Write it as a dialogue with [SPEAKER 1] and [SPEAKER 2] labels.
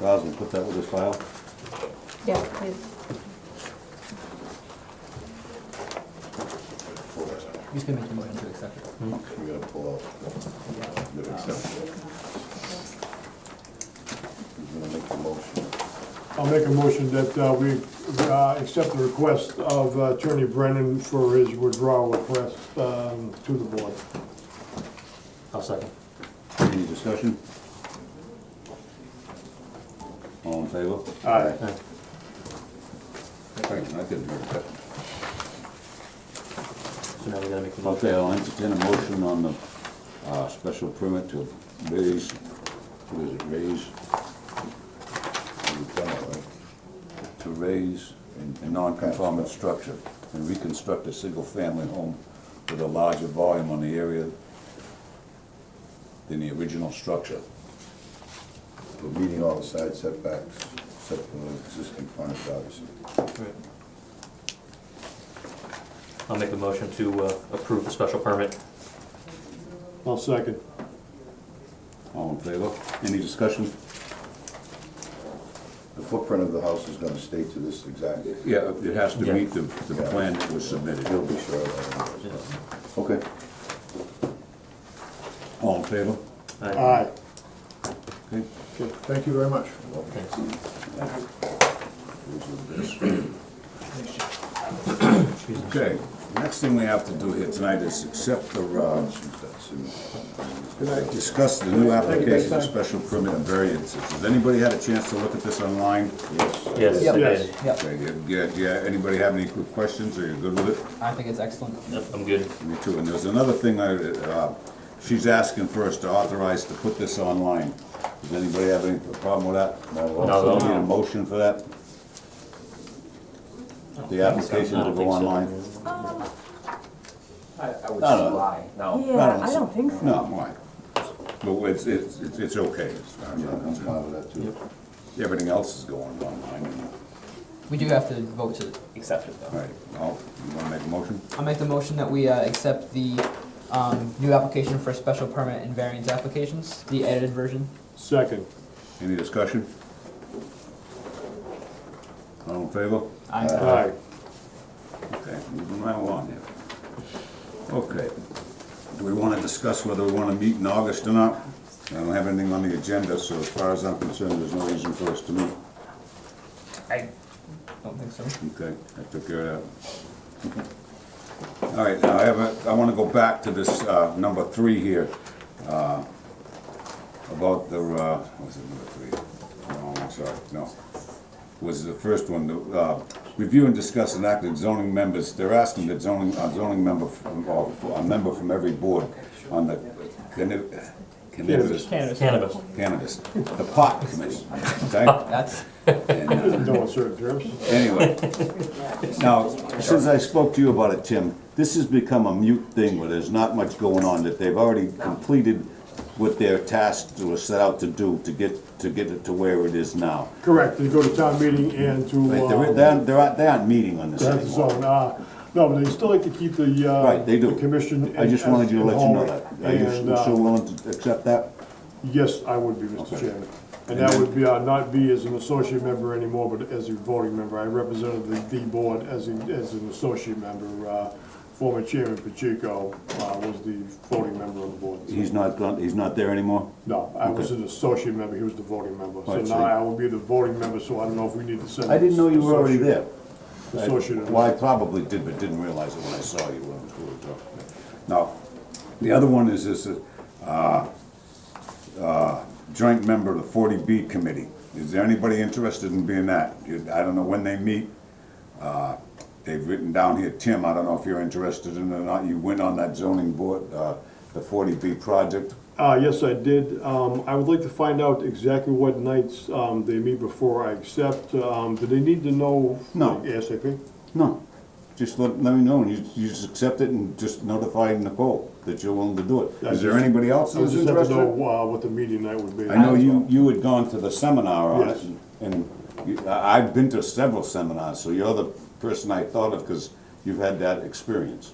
[SPEAKER 1] Roslyn, put that with his file.
[SPEAKER 2] Yeah, please.
[SPEAKER 3] He's gonna make a motion to accept it.
[SPEAKER 4] We gotta pull
[SPEAKER 3] Yeah.
[SPEAKER 4] out, the exception. He's gonna make the motion.
[SPEAKER 5] I'll make a motion that uh, we uh, accept the request of uh, Attorney Brennan for his withdrawal request um, to the board.
[SPEAKER 6] I'll second.
[SPEAKER 1] Any discussion? All in favor?
[SPEAKER 5] Aye.
[SPEAKER 6] Aye.
[SPEAKER 1] Wait a minute, I couldn't hear that.
[SPEAKER 6] So now we gotta make the motion.
[SPEAKER 1] Okay, I'll entertain a motion on the, uh, special permit to raise, what is it, raise?
[SPEAKER 4] We've done it, right?
[SPEAKER 1] To raise a a non-conformant structure and reconstruct a single-family home with a larger volume on the area than the original structure.
[SPEAKER 4] We're meeting all the side setbacks, except for the existing frontage, obviously.
[SPEAKER 6] Right. I'll make a motion to uh, approve the special permit.
[SPEAKER 5] I'll second.
[SPEAKER 1] All in favor? Any discussion?
[SPEAKER 4] The footprint of the house is gonna stay to this exact,
[SPEAKER 1] Yeah, it has to
[SPEAKER 6] Yeah.
[SPEAKER 1] meet the, the plan that was submitted.
[SPEAKER 4] he'll be sure of that.
[SPEAKER 1] Okay. All in favor?
[SPEAKER 6] Aye.
[SPEAKER 5] Aye.
[SPEAKER 1] Okay.
[SPEAKER 5] Okay, Thank you very much.
[SPEAKER 6] Thanks.
[SPEAKER 1] Okay, next thing we have to do here tonight is accept the, uh, discuss the new application of special permit and variances. Has anybody had a chance to look at this online? Yes.
[SPEAKER 6] Yes, I
[SPEAKER 5] Yes.
[SPEAKER 6] did.
[SPEAKER 3] Yep,
[SPEAKER 1] Okay, yeah, yeah, yeah, anybody have any quick questions, are you good with it?
[SPEAKER 3] I think it's excellent.
[SPEAKER 6] Yep, I'm good.
[SPEAKER 1] Me too, and there's another thing I, uh, she's asking for us to authorize to put this online. Does anybody have any problem with that?
[SPEAKER 6] No.
[SPEAKER 1] Need a motion for that? The application
[SPEAKER 6] I
[SPEAKER 1] will
[SPEAKER 6] don't
[SPEAKER 1] go
[SPEAKER 6] think so.
[SPEAKER 1] online?
[SPEAKER 7] I, I would
[SPEAKER 1] No, no.
[SPEAKER 7] lie, no.
[SPEAKER 2] Yeah, I don't think so.
[SPEAKER 1] No, why? But it's, it's, it's it's okay. It's not-
[SPEAKER 4] I'm
[SPEAKER 1] it's
[SPEAKER 4] fine
[SPEAKER 1] not-
[SPEAKER 4] with that too.
[SPEAKER 1] Everything else is going online.
[SPEAKER 3] We do have to vote to accept it
[SPEAKER 1] All
[SPEAKER 3] though.
[SPEAKER 1] right, well, you wanna make a motion?
[SPEAKER 3] I'll make the motion that we uh, accept the um, new application for special permit and variance applications, the edited version.
[SPEAKER 5] Second.
[SPEAKER 1] Any discussion? All in favor?
[SPEAKER 3] Aye.
[SPEAKER 5] Aye.
[SPEAKER 1] Okay, moving right along here. Okay, do we wanna discuss whether we wanna meet in August or not? I don't have anything on the agenda, so as far as I'm concerned, there's no reason for us to meet.
[SPEAKER 3] I don't think so.
[SPEAKER 1] Okay, I took care of that. All right, now I have a, I want to go back to this uh, number three here, uh, about the, uh, what was it number three? No, I'm sorry, no. Was the first one, the, uh, review and discuss and act on zoning members, they're asking that zoning, a zoning member, from- or a member from every board on the canni- cannabis,
[SPEAKER 6] Cannabis.
[SPEAKER 1] cannabis, the pot committee, okay?
[SPEAKER 3] That's,
[SPEAKER 1] And, uh,
[SPEAKER 5] No uncertain terms.
[SPEAKER 1] Anyway, now, since I spoke to you about it, Tim, this has become a mute thing where there's not much going on, that they've already completed what their task was set out to do to get, to get it to where it is now.
[SPEAKER 5] Correct, they go to town meeting and
[SPEAKER 1] Right,
[SPEAKER 5] to,
[SPEAKER 1] they're,
[SPEAKER 5] uh,
[SPEAKER 1] they're, they're not- they aren't meeting on this
[SPEAKER 5] to have the
[SPEAKER 1] anymore.
[SPEAKER 5] zone. Uh, No, but they still like to keep the, uh,
[SPEAKER 1] Right, they do.
[SPEAKER 5] the commission.
[SPEAKER 1] I just wanted you to let you know that. Are you
[SPEAKER 5] And, uh,
[SPEAKER 1] so willing to accept that?
[SPEAKER 5] Yes, I would be, Mr.
[SPEAKER 1] Okay.
[SPEAKER 5] Chairman. And that would be, uh, not be as an associate member anymore, but as a voting member. I represented the, the board as a, as an associate member. Uh, Former Chairman Pacheco uh, was the voting member of the board.
[SPEAKER 1] He's not, gone- he's not there anymore?
[SPEAKER 5] No, I was an associate member, he was the voting member. So
[SPEAKER 1] Right, so-
[SPEAKER 5] now I will be the voting member, so I don't know if we need to send.
[SPEAKER 1] I didn't know you were already
[SPEAKER 5] associate-
[SPEAKER 1] there. I-
[SPEAKER 5] Associate. or not.
[SPEAKER 1] Well, I probably did, but didn't realize it when I saw you when I was going to talk. Now, the other one is this, uh, uh, joint member of the forty B committee. Is there anybody interested in being that? You- I don't know when they meet. Uh, They've written down here, Tim, I don't know if you're interested in it or not. You went on that zoning board, uh, the forty B project.
[SPEAKER 5] Uh, yes, I did. Um, I would like to find out exactly what nights, um, they meet before I accept. Um, do they need to know?
[SPEAKER 1] No.
[SPEAKER 5] ASAP?
[SPEAKER 1] No, just let, let me know, and you, you just accept it and just notify Nicole that you're willing to do it. Is there anybody else
[SPEAKER 5] I
[SPEAKER 1] that's
[SPEAKER 5] just have to
[SPEAKER 1] interested?
[SPEAKER 5] know, uh, what the meeting night would be.
[SPEAKER 1] I know you, you had gone to the seminar on it,
[SPEAKER 5] Yes.
[SPEAKER 1] and you- I- I've been to several seminars, so you're the person I thought of, because you've had that experience.